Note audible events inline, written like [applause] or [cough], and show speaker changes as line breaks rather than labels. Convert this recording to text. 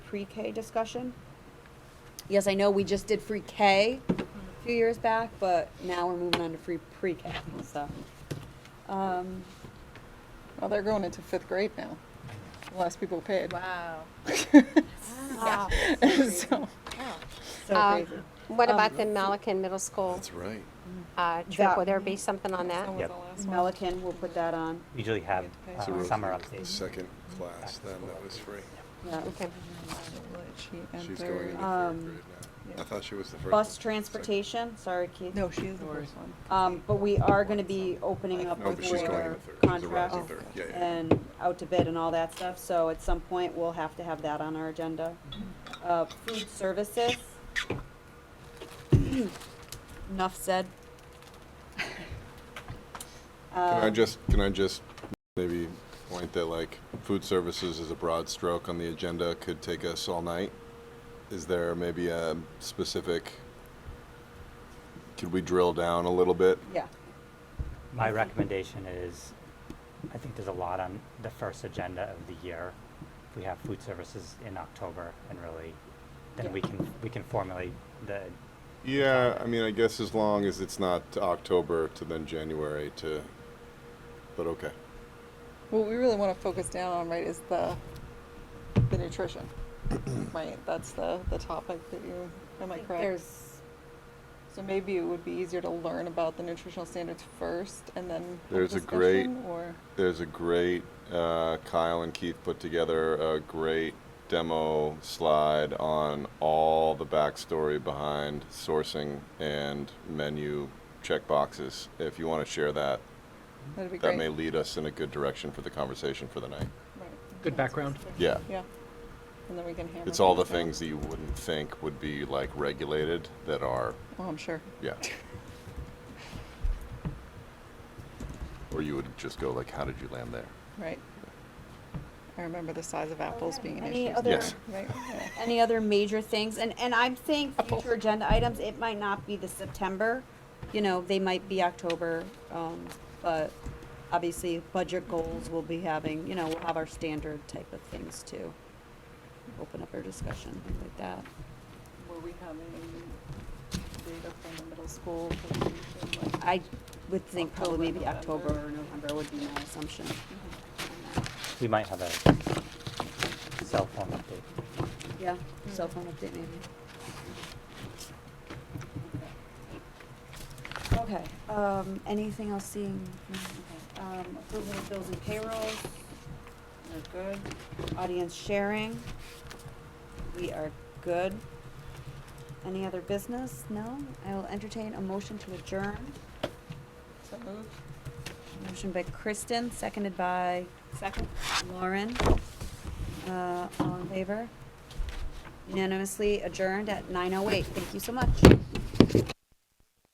pre-K discussion. Yes, I know we just did free K a few years back, but now we're moving on to free pre-K, so. Um,
Well, they're going into fifth grade now. Less people paid.
Wow.
Wow.
[laughs] so,
so
Uh,
crazy.
What about the Malacan Middle School
That's right.
uh,
That-
trip? Will there be something on that?
That was
Yep.
the last
Mm-hmm.
one.
Melican, we'll put that on,
usually have uh,
So we're
summer
looking at the
updates.
Second class, then that was free.
yeah.
Okay.
She
She's
entered-
going into third grade
Um,
now. I thought she was the first.
Bus transportation, sorry, Keith.
No, she is the first one.
Um, but we are gonna be opening up
No,
with
but she's going in
our
the third. She's a
contract
rising third. Yeah, yeah.
and out to bid and all that stuff, so at some point, we'll have to have that on our agenda. Uh, food services. [clears throat] Enough said.
Can I
Um,
just, can I just maybe point that like food services is a broad stroke on the agenda, could take us all night? Is there maybe a specific, could we drill down a little bit?
Yeah,
My recommendation is, I think there's a lot on the first agenda of the year. If we have food services in October and really, then we can, we can formulate the,
Yeah, I mean, I guess as long as it's not October to then January to, but okay.
What we really want to focus down on, right, is the the
[clears throat]
nutrition. right, that's the the topic that you. Am I correct?
There's,
so maybe it would be easier to learn about the nutritional standards first, and then have
There's a great-
discussion, or
There's a great, uh, Kyle and Keith put together a great demo slide on all the backstory behind sourcing and menu checkboxes. If you want to share that,
that'd be
that
great.
may lead us in a good direction for the conversation for the night.
Right.
Good background.
Yeah.
Yeah, and then we can hammer.
It's all the
out.
things that you wouldn't think would be like regulated that are,
Oh, I'm sure. [laughs]
yeah. Or you would just go like, how did you land there?
Right. I remember the size of apples being an
Any
issue.
other-
Yes.
[laughs]
Right. yeah.
any other major things, and, and I'm saying
Apple.
future agenda items, it might not be the September, you know, they might be October, um, but obviously budget goals we'll be having, you know, we'll have our standard type of things to open up our discussion, things like that.
Were we having data from the middle school for the nutrition, like,
I would think probably
October,
maybe October or November would be my assumption.
we might have a cell phone update.
Yeah, cell phone update maybe. Okay, um, anything else seeing, um, approval of bills and payrolls, we're good. Audience sharing, we are good. Any other business? No? I will entertain a motion to adjourn.
So moved.
Motion by Kristen, seconded by
Second?
Lauren. Uh, all in favor? Unanimously adjourned at nine oh eight. Thank you so much.